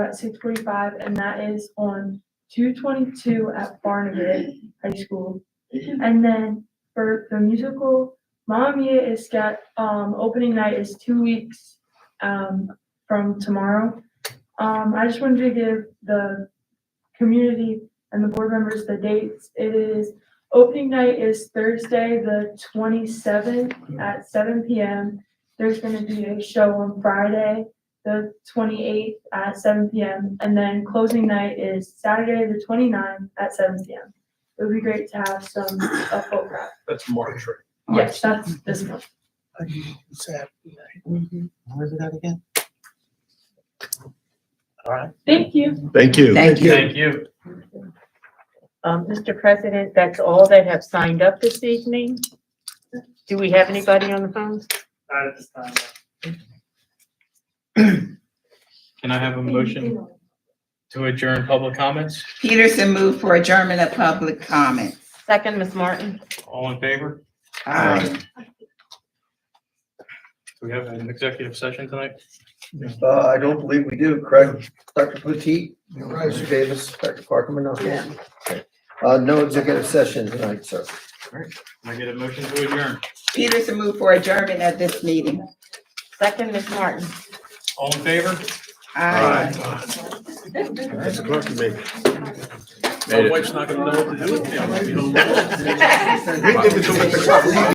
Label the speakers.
Speaker 1: at six forty-five, and that is on two twenty-two at Barnegat High School. And then for the musical, Mamma Mia is got, um, opening night is two weeks, um, from tomorrow. Um, I just wanted to give the community and the board members the dates. It is, opening night is Thursday, the twenty-seventh at seven PM. There's gonna be a show on Friday, the twenty-eighth at seven PM, and then closing night is Saturday, the 29th at seven PM. It would be great to have some, a full crowd.
Speaker 2: That's March, right?
Speaker 1: Yes, that's this month.
Speaker 3: Saturday night. Where is it at again? All right.
Speaker 1: Thank you.
Speaker 4: Thank you.
Speaker 5: Thank you.
Speaker 2: Thank you.
Speaker 6: Um, Mr. President, that's all that have signed up this evening. Do we have anybody on the phone?
Speaker 2: Not at this time. Can I have a motion to adjourn public comments?
Speaker 5: Peterson moved for adjournment of public comment.
Speaker 6: Second, Ms. Martin.
Speaker 2: All in favor?
Speaker 5: Aye.
Speaker 2: Do we have an executive session tonight?
Speaker 7: Uh, I don't believe we do, correct? Dr. Potteet? Mr. Davis, Dr. Parkman, okay. Uh, no executive session tonight, sir.
Speaker 2: Can I get a motion to adjourn?
Speaker 5: Peterson moved for adjournment at this meeting.
Speaker 6: Second, Ms. Martin.
Speaker 2: All in favor?
Speaker 5: Aye.
Speaker 4: That's a clock to make.
Speaker 2: My wife's not gonna know what to do with me. I'm gonna be home.
Speaker 4: Made it.